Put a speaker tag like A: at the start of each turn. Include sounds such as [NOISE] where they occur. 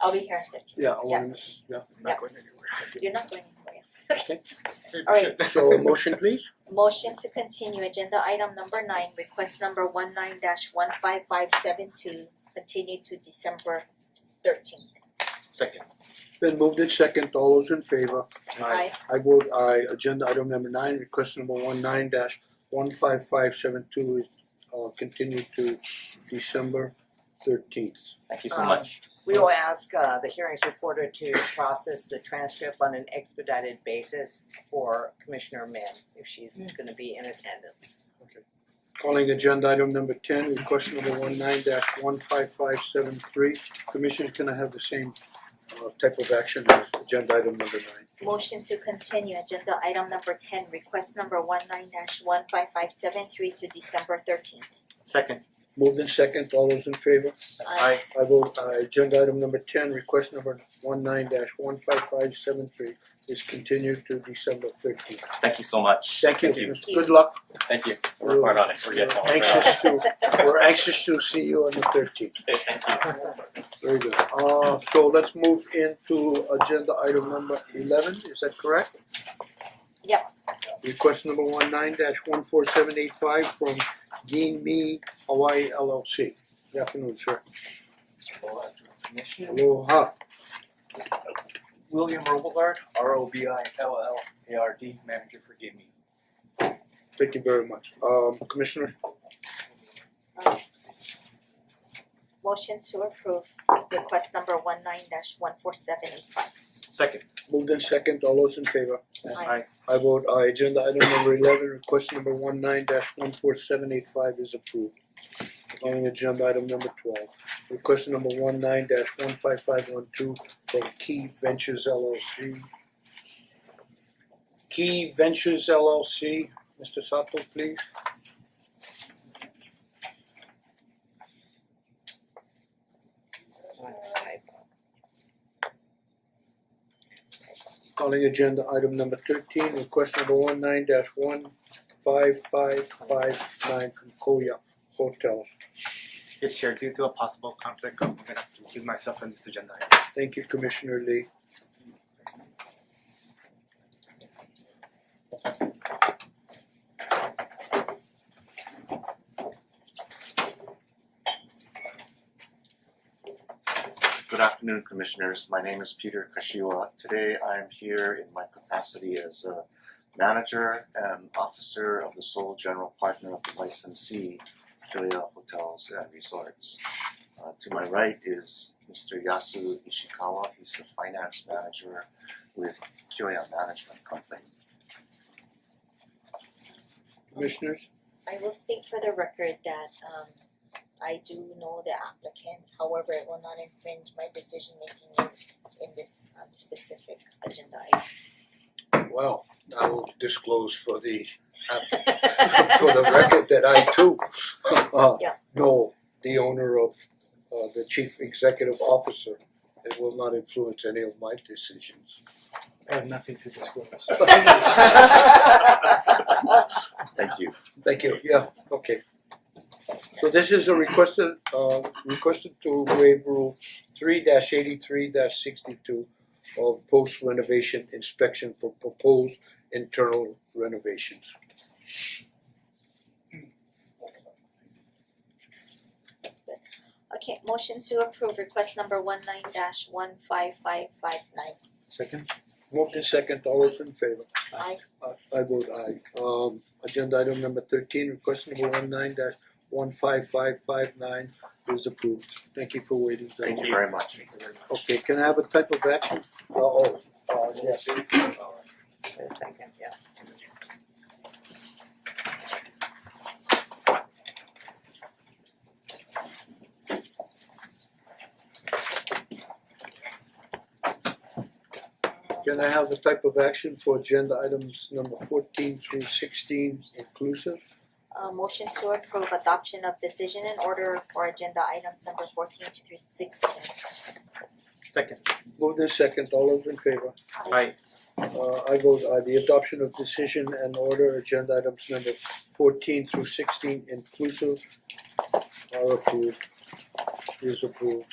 A: I'll be here at fifteen.
B: Yeah, always, yeah.
A: Yeah.
C: not going anywhere.
A: You're not going anywhere.
C: Maybe
A: All
C: we
A: right.
C: [LAUGHS] should.
B: So a motion please,
A: Motion to continue, agenda item number nine, request number one nine dash one five five seven two, continue to December thirteenth.
C: Second.
B: then moved in second, all those in favor?
A: Aye.
B: I vote aye, agenda item number nine, request number one nine dash one five five seven two is uh continued to December thirteenth.
D: Thank you so
E: Um,
D: much.
E: We will ask uh the hearings reporter to process the transcript on an expedited basis for Commissioner Min if she's gonna be in attendance.
B: Calling agenda item number ten, request number one nine dash one five five seven three, Commissioners, can I have the same uh type of action as agenda item number nine?
A: Motion to continue, agenda item number ten, request number one nine dash one five five seven three to December thirteenth.
C: Second.
B: Moved in second, all those in favor?
A: Aye.
B: I vote aye, agenda item number ten, request number one nine dash one five five seven three is continued to December thirteenth.
D: Thank you so much.
B: Thank you,
D: Thank you.
B: good luck.
D: Thank you. We're hard on it. We're getting
B: We're anxious to, we're anxious to see you on the thirteenth,
D: Okay, Thank you.
B: very good. Uh so let's move into agenda item number eleven, is that correct?
A: Yep.
B: Request number one nine dash one four seven eight five from Gene Me Hawaii LLC. Good afternoon, sir. Aloha,
C: William Robillard, R O B I L L A R D, manager for Give Me.
B: thank you very much. Um Commissioner,
A: [LAUGHS] Motion to approve, request number one nine dash one four seven eight five.
C: Second.
B: moved in second, all those in favor?
A: Aye.
B: I vote aye, agenda item number eleven, request number one nine dash one four seven eight five is approved. Calling agenda item number twelve, request number one nine dash one five five one two from Key Ventures LLC. Key Ventures LLC, Mr. Sato, please. Calling agenda item number thirteen, request number one nine dash one five five five nine from Koya Hotels.
C: Yes, Chair, due to a possible conflict, I'm gonna have to recuse myself from this agenda item.
B: Thank you, Commissioner Lee.
F: Good afternoon, Commissioners. My name is Peter Kashiwa. Today I am here in my capacity as a manager and officer of the sole general partner of the licensee, Kilea Hotels and Resorts. Uh, to my right is Mr. Yasu Ishikawa. He's the finance manager with Kilea Management Company.
B: Commissioners?
A: I will state for the record that um I do know the applicant, however, it will not infringe my decision making in in this um specific agenda item.
G: Well, I will disclose for the [LAUGHS] [LAUGHS] for the
A: Aye.
G: record that I too [LAUGHS] uh
A: Yeah.
G: know the owner of uh the chief executive officer. It will not influence any of my decisions.
B: I have nothing to disclose.
G: [LAUGHS]
F: Thank you.
B: Thank you, yeah, okay. So this is a requested, uh, requested to waive rule three dash eighty-three dash sixty-two of post renovation inspection for proposed internal renovations.
A: Okay, motion to approve request number one nine dash one five five five nine.
C: Second.
B: Moved in second, all those in favor?
A: Aye.
B: I I vote aye. Um agenda item number thirteen, request number one nine dash one five five five nine is approved. Thank you for waiting.
F: Thank you very much.
C: Thank you very much.
B: Okay, can I have a type of action? Uh oh, uh yes.
E: Wait a second, yeah.
B: Can I have a type of action for agenda items number fourteen through sixteen inclusive?
A: Uh motion to approve adoption of decision and order for agenda items number fourteen through sixteen.
C: Second.
B: Moved in second, all those in favor?
C: Aye.
B: Uh I vote aye, the adoption of decision and order agenda items number fourteen through sixteen inclusive are approved, is approved.